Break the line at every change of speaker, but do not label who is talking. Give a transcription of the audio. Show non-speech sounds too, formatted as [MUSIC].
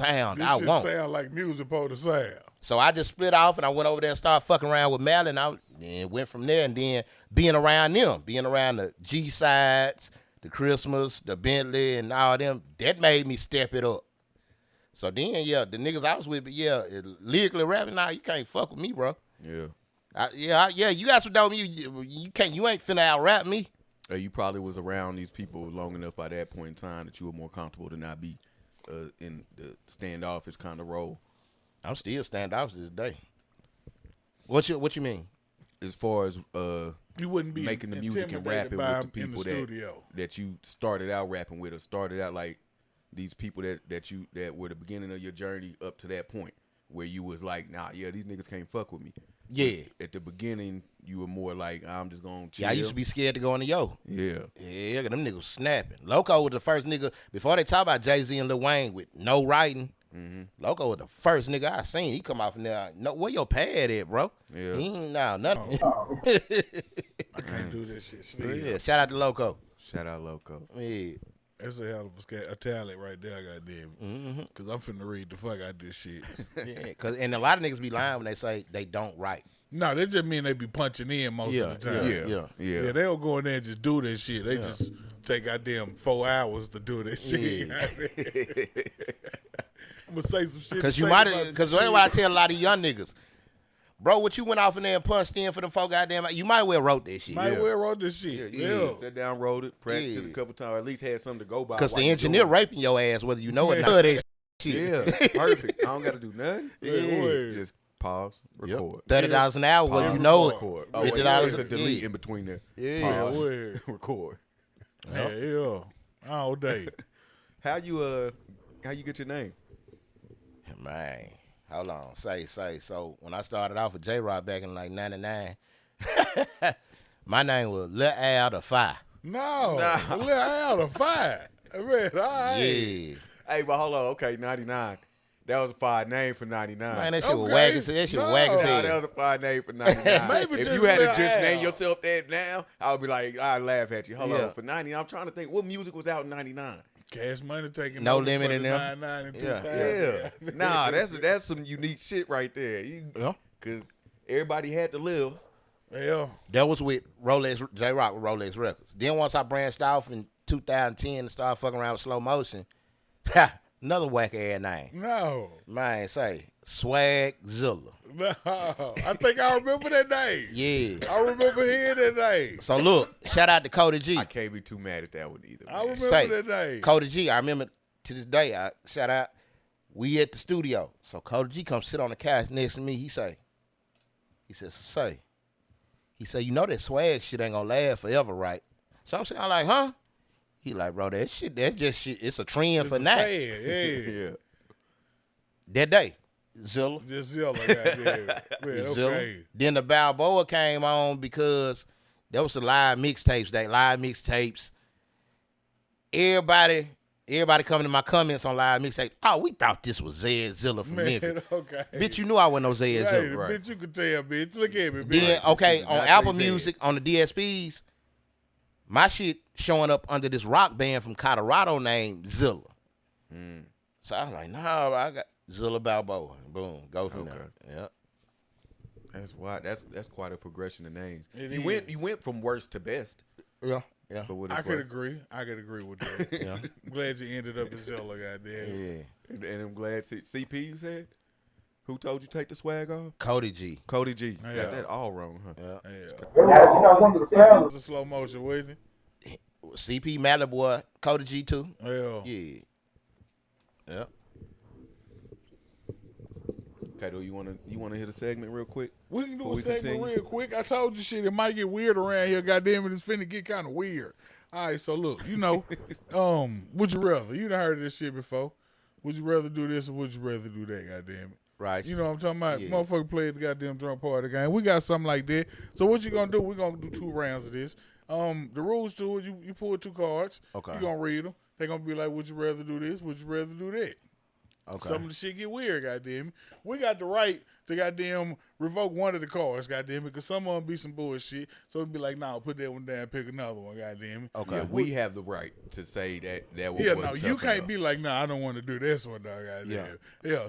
sound
This
I
shit
want.
sound like music supposed to sound.
So I just split off and I went over there and started fucking around with Mel and I and went from there and then being around them, being around the G sides, the Christmas, the Bentley and all them, that made me step it up. So then yeah, the niggas I was with, but yeah, it- lyrically rapping, nah, you can't fuck with me, bro.
Yeah.
I, yeah, I, yeah, you got some dope music. You, you can't, you ain't finna out rap me.
Uh, you probably was around these people long enough by that point in time that you were more comfortable to not be uh, in the standoffish kind of role.
I'm still standoff to this day. What you, what you mean?
As far as uh,
You wouldn't be
making the music and
intimidated
rapping
by
with the
him in
people
the
that,
studio.
that you started out rapping with or started out like these people that, that you that were the beginning of your journey up to that point where you was like, nah, yeah, these niggas can't fuck with me.
Yeah,
At the beginning, you were more like, I'm just gonna chill.
yeah, I used to be scared to go on the yo.
Yeah.
Yeah, them niggas snapping. Loco was the first nigga before they talk about Jay Z and Lil Wayne with no writing. Loco was the first nigga I seen. He come out from there. No, where your pad at, bro?
Yeah.
He ain't- nah, nothing.
Oh, I can't do this shit.
[LAUGHS]
Sneeze.
yeah, shout out to Loco.
Shout out [LAUGHS] Loco.
Yeah,
That's a hell of a, sca- a talent right there, goddamn. Mm-hmm. Cause I'm finna read the fuck out this shit. [LAUGHS]
yeah. Cause and a lot of niggas be lying when they say they don't write.
no, that just mean they be punching in most of the time.
Yeah.
Yeah.
Yeah, they don't go in there and just do that shit. They just take goddamn four hours to do that shit. [LAUGHS] I'm gonna say some shit.
Cause
to
you
say
might,
about some
cause
shit.
that's what I tell a lot of young niggas. Bro, what you went off in there and punched in for them four goddamn, you might well wrote that shit.
might
yeah.
well wrote this
Yeah,
shit.
you
Yeah,
sat down, wrote it, practiced it
Yeah.
a couple times, or at least had something to go by.
Cause
while
the
you
engineer
doing it.
raping your ass whether you know it or
Yeah.
not. Love that shit. [LAUGHS]
Yeah, perfect. I don't got to do nothing.
Yeah. Word.
Just pause, record.
Thirty dollars an hour, well, you
Pause,
know
Record.
it.
Oh,
Fifty
wait,
dollars
there's a delete in between there.
Yeah.
Pause,
Word.
[LAUGHS] record.
yeah, yeah. All day.
How you uh, how you get your name?
Man, hold on. Say, say. So when I started off with J Rod back in like '99, [LAUGHS] my name was Lil Al the Five.
No, nah. well, I out of five. Man, all right.
Yeah,
Hey, but hold on. Okay, ninety nine. That was a fine name for ninety nine.
man, that shit was
Okay.
wack as that shit was wack as
No.
Nah, that
hell.
was a fine
[LAUGHS]
name for 99.
Maybe
if
just
you had to
Lil
just name
Al.
yourself that now, I would be like, I'd laugh at you. Hold
Yeah.
on. For 90, I'm trying to think what music was out in 99.
Cash money taking
No
over
limit
for
in
the
them.
99 and
Yeah.
2000.
Yeah. [LAUGHS] nah, that's that's some unique shit right there. You,
Yeah.
Cause everybody had to live.
Yeah.
That was with Rolex J Rock with Rolex Records. Then once I branched off in 2010 and started fucking around with slow motion, [LAUGHS] another whack ass name.
No.
Man, say Swagzilla.
No. I think I remember that name.
Yeah.
I remember hearing that name.
So look, shout out to Cody G.
I can't be too mad at that one either.
I
man.
remember
say,
that name.
Cody G, I remember to this day, I shout out, we at the studio. So Cody G come sit on the couch next to me. He say, he says, say, he say, you know that swag shit ain't gonna last forever, right? So I'm saying, I'm like, huh? He like, bro, that shit, that's just shit. It's a trend for
It's a
now.
fan,
[LAUGHS]
Yeah.
[LAUGHS]
yeah.
That day, Zilla.
Just Zilla,
[LAUGHS]
goddamn. Man,
Zilla.
okay.
Then the Balboa came on because that was the live mixtapes day, live mixtapes. Everybody, everybody coming to my comments on live mixtape. Oh, we thought this was Zed Zilla from
Man, [LAUGHS]
Memphis.
okay.
Bitch, you knew I wasn't no Zed
right,
Zilla.
right.
Bitch, you could tell, bitch. Look at me, bitch.
Then okay,
Did
on
not
Apple
say Zed.
Music, on the DSPs, my shit showing up under this rock band from Colorado named Zilla.
Hmm.
So I was like, nah, I got Zilla Balboa. Boom, go from there. Yep.
That's why that's that's quite a progression of names.
It
you went
is.
you went from worst to best.
Yeah, yeah.
For what
I
it's
could
worth.
agree. I could agree with that.
[LAUGHS] Yeah.
I'm glad you ended up in Zilla, goddamn.
Yeah.
And, and I'm glad C- CP you said. Who told you take the swag off?
Cody G.
Cody G.
Yeah.
Got that all wrong, huh?
Yeah.
you know, one of the sounds.
It was a slow motion, wasn't it?
CP Madlib boy, Cody G too.
Yeah.
Yeah. Yep.
Kato, you wanna you wanna hit a segment real quick?
We can do
Before
a
we
segment
continue.
real quick. I told you shit, it might get weird around here. Goddamn it, it's finna get kind of weird. All right, so look, you know, um, would you rather? You done heard this shit before. Would you rather do this or would you rather do that? Goddamn it.
Right.
You know what I'm talking about?
Yeah.
Motherfucker play at the goddamn drum party game. We got something like that. So what you gonna do? We're gonna do two rounds of this. Um, the rules to it, you, you pull two cards.
Okay.
You gonna read them. They're gonna be like, would you rather do this? Would you rather do that?
Okay.
Some of the shit get weird, goddamn. it. We got the right to goddamn revoke one of the cars, goddamn, because some of them be some bullshit. So it'd be like, nah, put that one down, pick another one, goddamn. it.
Okay.
Yeah, we have the right to say that that was.
Yeah,
wasn't
no,
tough
you can't
enough.
be like, nah, I don't want to do this one, dog. Goddamn. Yeah. yeah,